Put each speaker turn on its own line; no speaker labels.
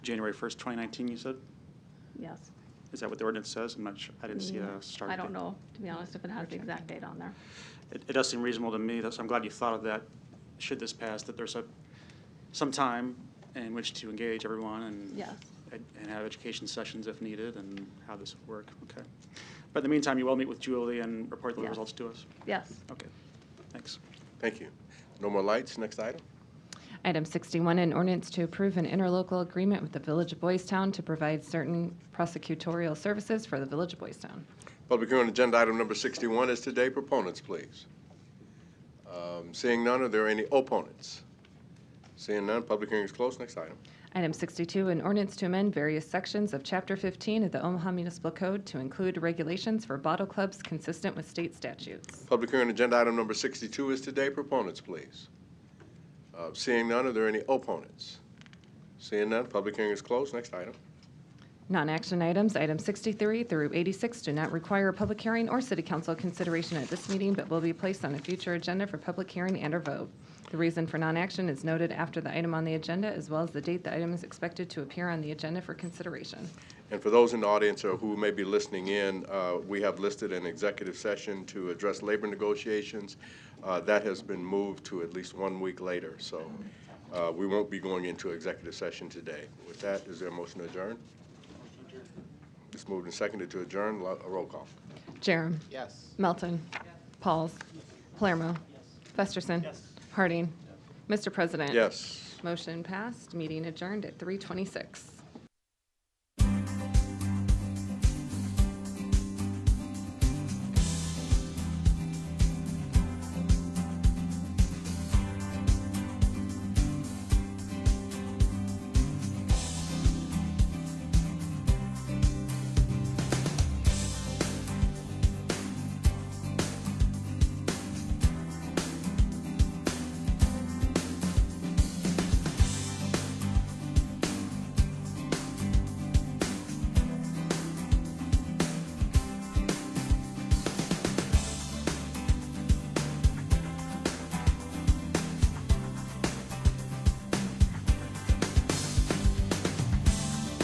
January 1st, 2019, you said?
Yes. Mm-hmm.
Is that what the ordinance says? I'm not sure, I didn't see a start
I
date.
don't know, to be honest, if it has the exact date on there.
It, it does seem reasonable to me, that's, I'm glad you thought of that, should this pass, that there's a, some time in which to engage everyone and.
Yes.
And and have education sessions if needed and how this would work, okay. But in the meantime, you will meet with Julie and report the
Yes.
results to us?
Yes.
Okay, thanks.
Thank you. No more lights. Next item.
Item 61, an ordinance to approve an interlocal agreement with the Village of Boys Town to provide certain prosecutorial services for the Village of Boys Town.
Public hearing on agenda item number 61 is today. Proponents, please. Um, Seeing none, are there any opponents? Seeing none, public hearing is closed. Next item.
Item 62, an ordinance to amend various sections of Chapter 15 of the Omaha Municipal Code to include regulations for bottle clubs consistent with state statutes.
Public hearing on agenda item number 62 is today. Proponents, please. Uh, Seeing none, are there any opponents? Seeing none, public hearing is closed. Next item.
Non-action items, item 63 through 86, do not require a public hearing or city council consideration at this meeting, but will be placed on a future agenda for public hearing and/or vote. The reason for non-action is noted after the item on the agenda, as well as the date the item is expected to appear on the agenda for consideration.
And for those in the audience or who may be listening in, uh, we have listed an executive session to address labor negotiations. Uh, That has been moved to at least one week later, so uh, we won't be going into executive session today. With that, is there a motion to adjourn? It's moved and seconded to adjourn. Lo- Roll call.
Jerem.
Yes.
Melton. Pauls. Palermo. Festerson. Harding. Mr. President.
Yes.
Motion passed, meeting adjourned at 3:26.